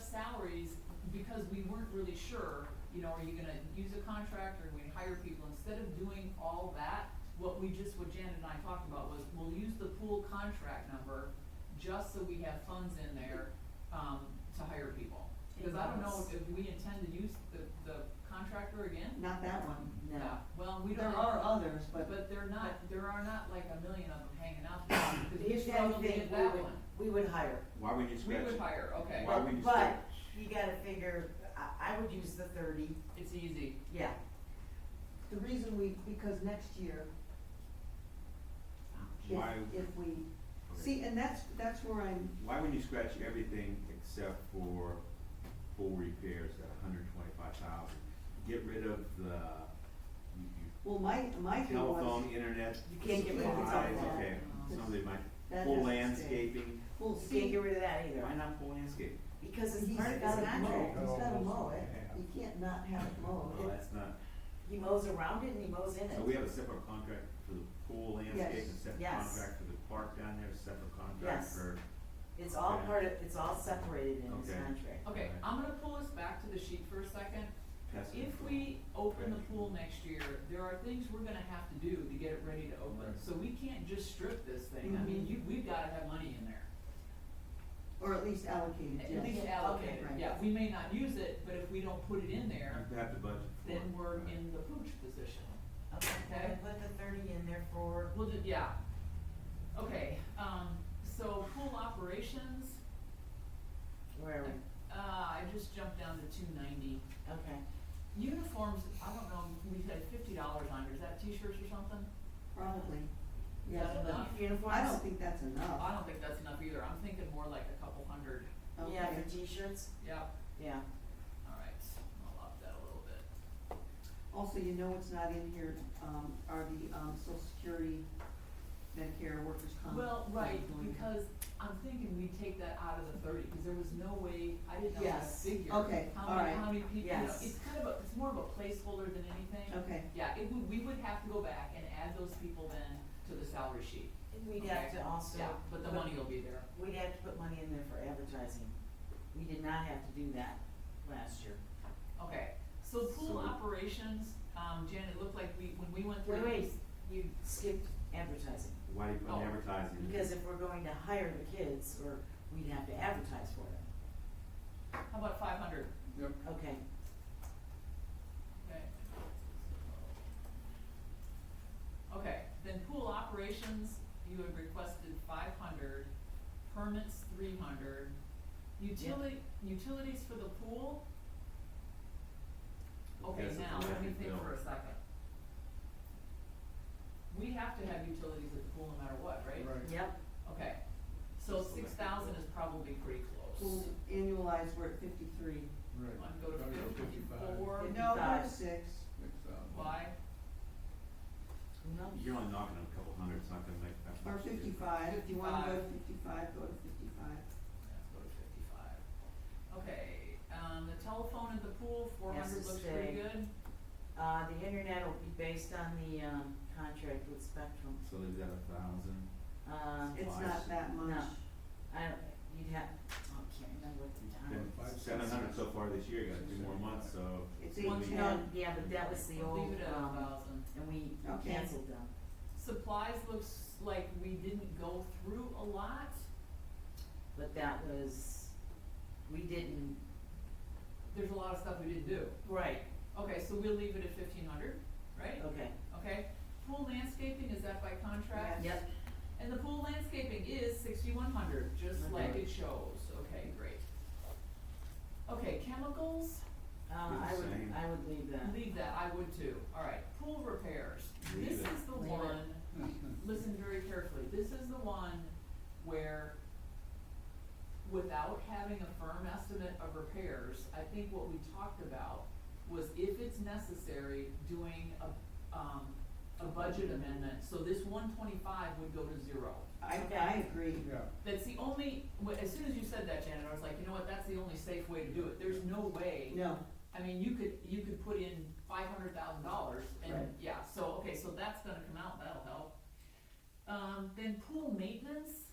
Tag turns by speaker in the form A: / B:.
A: salaries because we weren't really sure, you know, are you gonna use a contractor, are we gonna hire people? Instead of doing all that, what we just, what Janet and I talked about was, we'll use the pool contract number just so we have funds in there, um, to hire people. Because I don't know if we intend to use the, the contractor again?
B: Not that one, no.
A: Yeah, well, we
B: There
A: don't.
B: are others, but.
A: But they're not, there are not like a million of them hanging out there, because we
B: If
A: struggled to
B: anything,
A: get
B: we
A: that
B: would,
A: one.
B: we would hire.
C: Why would you
A: We
C: scratch
A: would
C: it?
A: hire, okay,
C: Why would you
B: But
C: stretch?
B: you gotta figure, I, I would use the thirty,
A: it's easy,
B: yeah.
D: The reason we, because next year, if,
C: Why,
D: if we,
C: Okay.
D: see, and that's, that's where I'm,
C: why would you scratch everything except for pool repairs at hundred twenty-five thousand? Get rid of the, you,
D: well, my, my
C: you,
D: thing was,
C: telephone, internet, supplies,
B: You
C: okay,
B: can't get rid of the telephone.
C: some of the,
D: That
C: pool
D: has to stay.
C: landscaping,
D: well,
B: You
D: see,
B: Can't
D: he's
B: get rid of that either,
C: why not pool landscape?
B: because it's part of his
D: gotta mow,
B: contract.
D: he's gotta mow
C: Yeah.
D: it, you can't not have it
B: Oh,
D: mowed.
C: Well, that's not,
B: He mows around it and he mows in it.
C: so we have a separate contract for the pool landscape,
D: Yes.
C: a separate
B: Yes.
C: contract for the park down there, a separate contract
B: Yes.
C: for,
B: It's all
C: Okay.
B: part of, it's all separated in his
C: Okay.
B: contract.
A: okay,
C: Right.
A: I'm gonna pull us back to the sheet for a second.
C: pest
A: If
C: control.
A: we open the pool next year, there are things we're gonna have to do to get it ready to open,
C: Right.
A: so we can't just strip this thing, I mean, you, we've gotta have money in there.
D: Or at least allocated,
A: At
D: yes.
A: least
B: Okay,
A: allocate it,
D: right.
A: yeah, we may not use it, but if we don't put it in there,
C: You have to budget for
A: then
C: it.
A: we're
C: Right.
A: in the pooch position.
B: Okay,
A: Okay.
B: then put the thirty in there for,
A: We'll ju- yeah. Okay, um, so pool operations,
B: where, are we?
A: uh, I just jumped down to two ninety.
B: okay.
A: Uniforms, I don't know, we had fifty dollars on, is that t-shirts or something?
D: probably,
A: Is that
D: yeah,
A: enough?
B: Uniforms?
D: I don't think that's
A: I
D: enough,
A: don't think that's enough either, I'm thinking more like a couple hundred,
D: okay.
B: Yeah, for t-shirts,
A: yep,
B: yeah.
A: alright, I'll up that a little bit.
D: Also, you know what's not in here, um, are the, um, social security, Medicare, workers' comp.
A: Well, right,
D: unemployment.
A: because I'm thinking we take that out of the thirty, because there was no way, I didn't know that
B: Yes.
A: figure.
D: Okay,
A: How
D: all
A: many,
D: right.
A: how many people, you know,
B: Yes.
A: it's kind of a, it's more of a placeholder than anything.
D: Okay,
A: Yeah, it would, we would have to go back and add those people then to the salary sheet.
B: And we'd have
A: Okay.
B: to also.
A: Yeah, but the
B: put-
A: money will be there.
B: We'd have to put money in there for advertising. We did not have to do that last year.
A: Okay, so pool
C: So-
A: operations, um, Janet, looked like we, when we went through.
B: Wait, wait, you skipped advertising,
C: Why do you put
A: Oh.
C: an advertising? in?
B: because if we're going to hire the kids, or we'd have to advertise for it.
A: How about five hundred?
C: Yep.
B: Okay,
A: Okay. Okay, then pool operations, you had requested five hundred, permits three hundred. Utility, utilities for the pool? Okay,
C: That's a
A: now, let me
C: collective
A: think
C: bill.
A: for a second. We have to have utilities at the pool no matter what, right?
B: yep,
A: Okay, so
C: Just electric
A: six thousand
C: bill.
A: is probably pretty close.
D: well, annualized, we're at fifty-three.
E: Right.
A: Wanna go to
E: Gotta go fifty-five.
A: fifty-four,
D: No, we're at
B: Five.
D: six.
E: Six thousand.
A: why?
B: no,
C: You're only knocking on a couple hundred, it's not gonna make that
D: Or
C: much. difference.
D: fifty-five, if you wanna go to fifty-five, go to fifty-five.
A: Let's go to fifty-five. Okay, um, the telephone at the pool, four
B: Yes,
A: hundred
B: it's
A: looks pretty
B: big.
A: good.
B: uh, the internet will be based on the, um, contract with Spectrum.
C: So leave that a thousand,
B: Uh,
D: It's
C: Five.
D: not that much.
B: No. I don't, you'd have, oh, I can't remember what the time.
C: then
E: Five, six,
C: seven hundred so
E: seven.
C: far this year, you got two more months, so.
D: It's
C: Well,
D: eight
C: you
B: No,
D: ten.
B: yeah, but that was the old,
A: Leave it at a
B: um,
A: thousand.
B: and we
D: Okay.
B: canceled them.
A: Supplies looks like we didn't go through a lot.
B: But that was, we didn't,
A: There's a lot of stuff we didn't do.
B: right,
A: Okay, so we'll leave it at fifteen hundred, right?
B: okay,
A: Okay, pool landscaping, is that by contract?
B: yep, Uh,
A: And the pool landscaping is sixty-one hundred, just
B: Okay.
A: like it shows. Okay, great. Okay, chemicals,
B: Uh, I
C: the
B: would,
C: same.
B: I would leave that.
A: leave that, I would too. All right, pool repairs.
C: Leave
A: This
C: it.
A: is the
B: Leave it.
A: one
E: Mhm.
A: listen very carefully, this is the one where without having a firm estimate of repairs, I think what we talked about was if it's necessary, doing a, um, a budget amendment, so this one twenty-five would go to zero.
D: I,
B: Okay.
D: I agree.
E: Yeah,
A: That's the only, wh- as soon as you said that, Janet, I was like, you know what, that's the only safe way to do it, there's no way.
D: No,
A: I mean, you could, you could put in five hundred thousand dollars and,
D: Right.
A: yeah, so, okay, so that's gonna come out, that'll help. Um, then pool maintenance,